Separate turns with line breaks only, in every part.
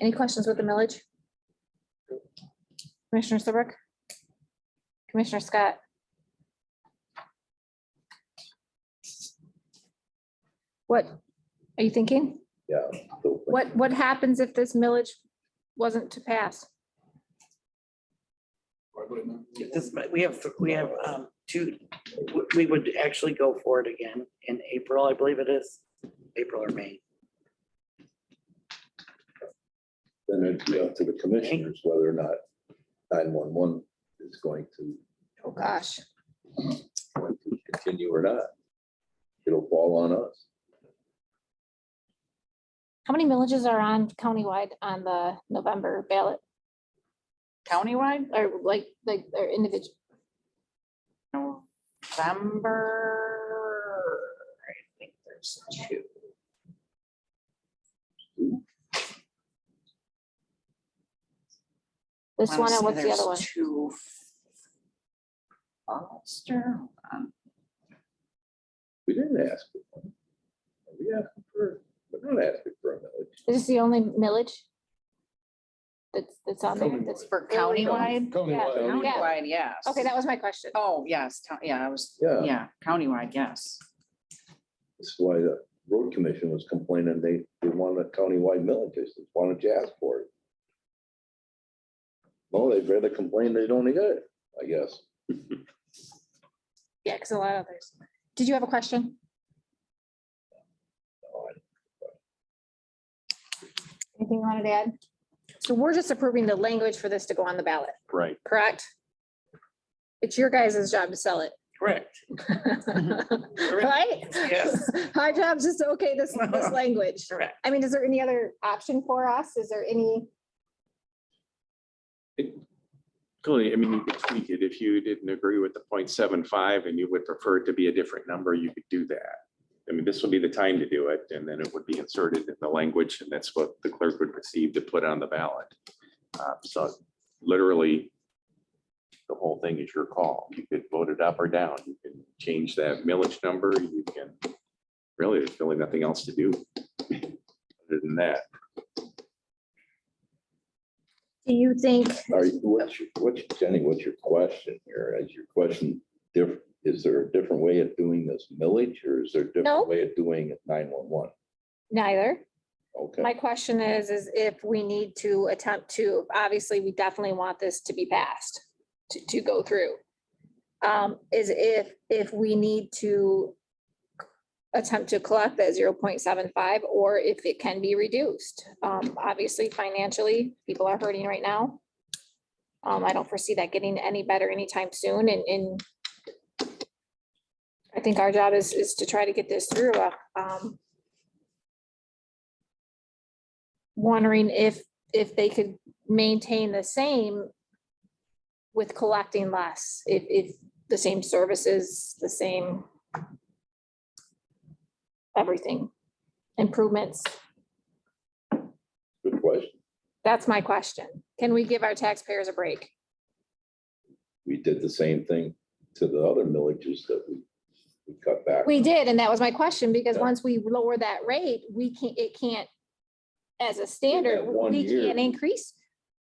Any questions with the millage? Commissioner Serbrook? Commissioner Scott? What are you thinking?
Yeah. so-
What, what happens if this millage wasn't to pass?
If this, but we have, we have um, two, we- we would actually go for it again in April, I believe it is, April or May.
Then it'd be up to the commissioners whether or not nine-one-one is going to,
Oh, gosh.
going to continue or not. It'll fall on us.
How many millages are on countywide on the November ballot
countywide,
or like, like, or individual?
November, I think there's two.
This
I wanna
one and what's the
say there's
other one?
Two. Ulster, um,
We didn't ask. for one. We asked for, we're not asking for a millage.
Is this the only millage? That's, that's on there,
Countywide.
that's,
for countywide,
Countywide. Yeah.
countywide, yes.
okay, that was my question.
Oh, yes, town- yeah, I was,
Yeah.
yeah, countywide, yes.
That's why the road commission was complaining. They, they want a countywide millage. They said, why don't you ask for it? Well, they'd rather complain they don't get it, I guess.
Yeah, because a lot of others. Did you have a question? Anything you wanted to add? So we're just approving the language for this to go on the ballot,
Right.
correct? It's your guys' job to sell it,
Correct.
right?
Yes.
Our job's just, to okay, this, this language.
Correct.
I mean, is there any other option for us? Is there any?
Clearly, I mean, you could tweak it. If you didn't agree with the 0.75 and you would prefer it to be a different number, you could do that. I mean, this would be the time to do it, and then it would be inserted in the language, and that's what the clerk would receive to put on the ballot. Uh, So literally, the whole thing is your call. You could vote it up or down. You can change that millage number. You can, really, there's really nothing else to do other than that.
Do you think?
Are you, what's, your- what's, Jenny, what's your question here? Is your question diff, is there a different way of doing this millage or is there a
No.
different way of doing nine-one-one?
Neither.
Okay,
My question is, is if we need to attempt to, obviously, we definitely want this to be passed, to, to go through. Um, is if, if we need to attempt to collect that zero point seven five, or if it can be reduced. Um, obviously, financially, people are hurting right now. Um, I don't foresee that getting any better anytime soon, and, and I think our job is, is to try to get this through, uh, um, wondering if, if they could maintain the same with collecting less, if, if the same services, the same everything, improvements.
good question.
That's my question. Can we give our taxpayers a break?
We did the same thing to the other villages that we, we cut back.
We did, and that was my question, because
Yeah.
once we lower that rate, we can't, it can't, as a standard,
one
we
year.
can't increase.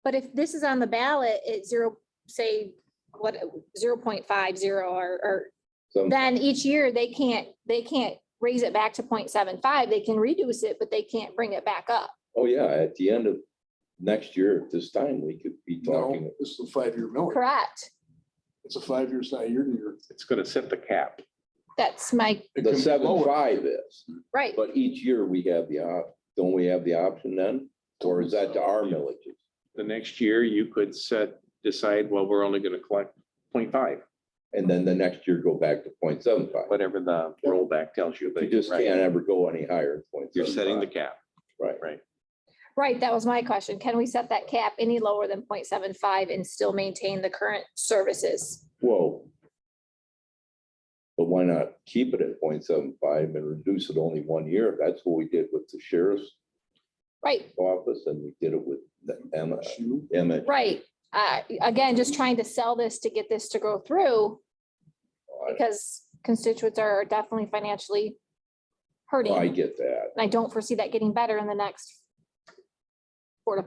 But if this is on the ballot at zero, say, what, zero point five zero or, or
Some-
then each year they can't, they can't raise it back to 0.75. They can reduce it, but they can't bring it back up.
Oh, yeah, at the end of next year, at this time, we could be talking.
No, this is a five-year millage.
Correct.
It's a five year, it's not year to year.
It's going to set the cap.
That's my,
It
The
can be lower.
seven-five is,
right.
but each year we have the op, don't we have the option then? Or is that to our villages?
the next year, you could set, decide, well, we're only gonna collect 0.5,
And then the next year go back to 0.75.
whatever the rollback tells you.
You
but
just
right,
can't ever go any higher. than
You're setting the
0.75.
cap.
Right.
Right, that was my question. Can we set that cap any lower than 0.75 and still maintain the current services?
Whoa. But why not keep it at 0.75 and reduce it only one year? That's what we did with the sheriff's
Right,
office and we did it with the M,
Shoe.
Emmett.
right. Uh, again, just trying to sell this to get this to go through because constituents are definitely financially hurting.
I
And
get that.
I don't foresee that getting better in the next